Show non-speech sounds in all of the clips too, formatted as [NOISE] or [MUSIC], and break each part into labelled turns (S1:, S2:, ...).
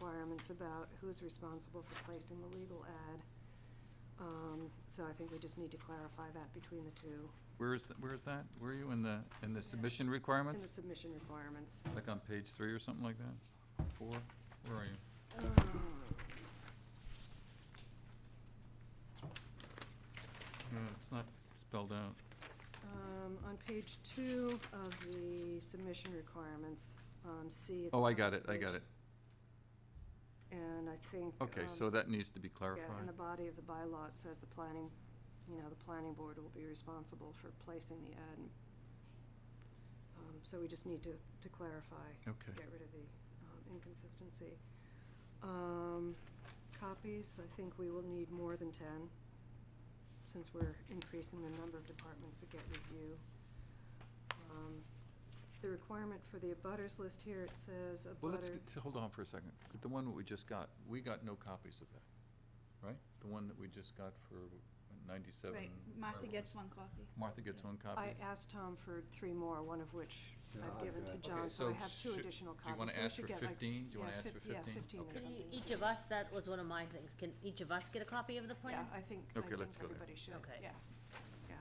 S1: requirements about who's responsible for placing the legal ad. Um, So I think we just need to clarify that between the two,
S2: Where is, th- where is that? Where are you in the, in the submission
S1: in the
S2: requirements?
S1: submission requirements.
S2: Like on page three or something like that? Four? Where are you?
S1: Um,
S2: No, It's not spelled out.
S1: um, On page two of the submission requirements, um, C. at the
S2: Oh, I
S1: top
S2: got
S1: of
S2: it, I
S1: page-
S2: got it.
S1: And I think.
S2: Okay,
S1: um,
S2: so that needs to be clarified.
S1: Yeah, in the body of the bylaw, it says the planning, you know, the planning board will be responsible for placing the ad. and, um, So we just need to, to clarify,
S2: Okay,
S1: get rid of the um, inconsistency. Um, Copies, I think we will need more than ten, since we're increasing the number of departments that get review. Um, The requirement for the abutters list here, it says abutter.
S2: well, let's, get- hold on for a second. The one that we just got, we got no copies of that, right? The one that we just got for ninety-seven.
S3: Right, Martha
S2: whatever it
S3: gets
S2: was.
S3: one copy.
S2: Martha gets one copy?
S1: I asked Tom for three more, one of which
S4: Yeah,
S1: I've
S4: I've
S1: given to
S4: got-
S1: John,
S2: Okay,
S1: so I
S2: so
S1: have two
S2: should-
S1: additional
S2: Do you
S1: copies,
S2: wanna
S1: so we
S2: ask for
S1: should get like.
S2: fifteen? Do you wanna
S1: yeah,
S2: ask for
S1: fif-
S2: fifteen?
S1: yeah, 15 or
S2: Okay.
S1: something.
S5: Each of us, that was one of my things. Can each of us get a copy of the plan?
S1: Yeah, I think, I
S2: Okay,
S1: think
S2: let's go there.
S1: everybody should,
S5: Okay.
S1: yeah, yeah.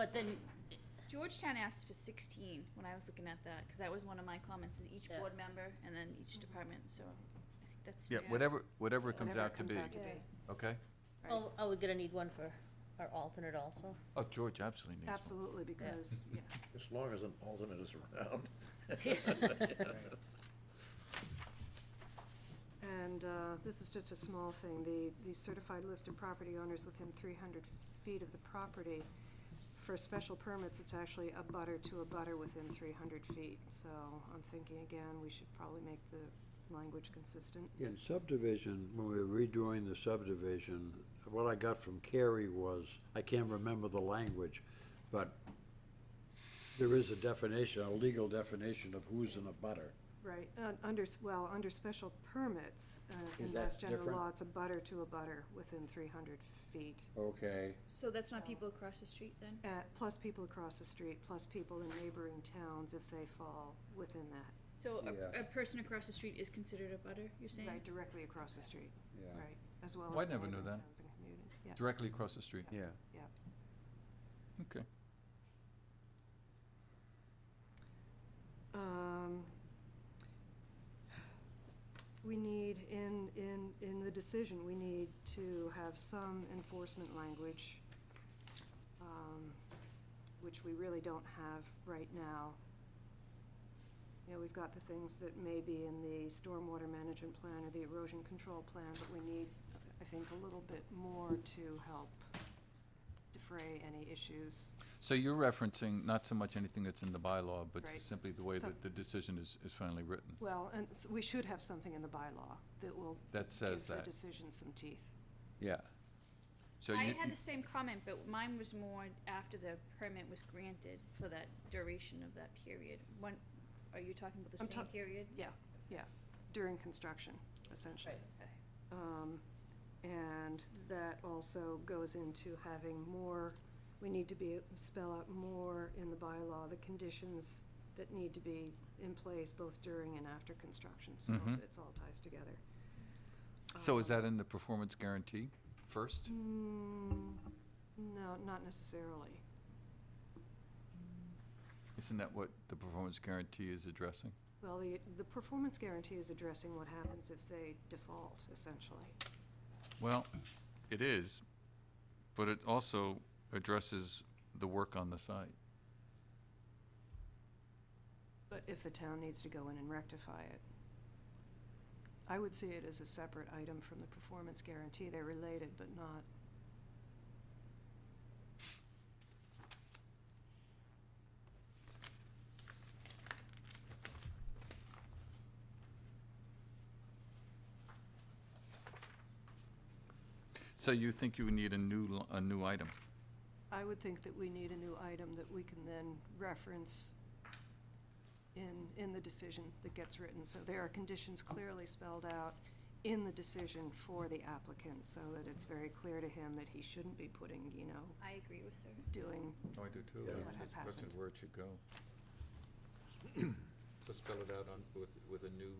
S5: But then,
S3: Georgetown asked for sixteen when I was looking at that, because that was one of my comments, is each
S5: Yeah.
S3: board member and then each department, so I think that's
S2: Yeah,
S3: fair.
S2: whatever, whatever it comes
S1: Whatever
S2: out to be,
S1: comes out to
S3: Yeah.
S1: be,
S2: okay?
S1: Right.
S5: oh, oh, we're gonna need one for our alternate
S1: [LAUGHS]
S5: also. [LAUGHS]
S2: Oh, George absolutely needs one.
S1: absolutely, because, yes,
S4: As long as an alternate is around.
S1: and, uh, this is just a small thing, the, the certified list of property owners within three hundred feet of the property. For special permits, it's actually a butter to a butter within three hundred feet, so I'm thinking again, we should probably make the language consistent. [LAUGHS]
S4: In subdivision, when we were redoing the subdivision, what I got from Carrie was, I can't remember the language, but there is a definition, a legal definition of who's in a butter.
S1: Right, un- under, s- well, under special permits, uh, in
S4: Is that
S1: Mass General
S4: different?
S1: Law, it's a butter to a butter within three hundred feet.
S4: Okay.
S3: So that's not people across the street then?
S1: Uh, plus people across the street, plus people in neighboring towns if they fall within that.
S3: So
S4: Yeah.
S3: a, a person across the street is considered a butter, you're saying?
S1: Right, directly across the street,
S4: Yeah.
S1: right, as well
S2: Oh, I
S1: as the
S2: never knew
S1: neighboring
S2: that.
S1: towns and communities, yeah.
S2: Directly across the street,
S4: Yeah.
S2: okay.
S1: Um, We need, in, in, in the decision, we need to have some enforcement language, um, which we really don't have right now. You know, we've got the things that may be in the stormwater management plan or the erosion control plan, but we need, I think, a little bit more to help defray any issues.
S2: So you're referencing not so much anything that's in the bylaw, but
S1: Right.
S2: simply the way
S1: Some-
S2: that the decision is, is finally written,
S1: Well, and s- we should have something in the bylaw that will
S2: that says
S1: Give
S2: that.
S1: the decision some teeth.
S4: Yeah.
S2: So
S3: I
S2: you,
S3: had
S2: you-
S3: the same comment, but mine was more after the permit was granted for that duration of that period. When, are you talking about
S1: I'm
S3: the same
S1: ta-
S3: period?
S1: During construction, essentially.
S3: Okay.
S1: Um, And that also goes into having more, we need to be, spell out more in the bylaw, the conditions that need to be in place both during and after construction, so
S2: Mhm.
S1: it's all ties together.
S2: so is
S1: Um,
S2: that in the performance guarantee first?
S1: mm, No, not necessarily.
S2: Isn't that what the performance guarantee is addressing?
S1: Well, the, the performance guarantee is addressing what happens if they default, essentially.
S2: Well, it is, but it also addresses the work on the site.
S1: But if the town needs to go in and rectify it, I would see it as a separate item from the performance guarantee. They're related, but not.
S2: So you think you would need a new, li- a new item?
S1: I would think that we need a new item that we can then reference in, in the decision that gets written. So there are conditions clearly spelled out in the decision for the applicant, so that it's very clear to him that he shouldn't be putting, you know,
S3: I agree with her.
S1: doing,
S2: Oh, I do too.
S4: Yeah.
S2: I was
S1: What has
S2: just questioning
S1: happened.
S2: Where it should go. So spell it out on, with, with a new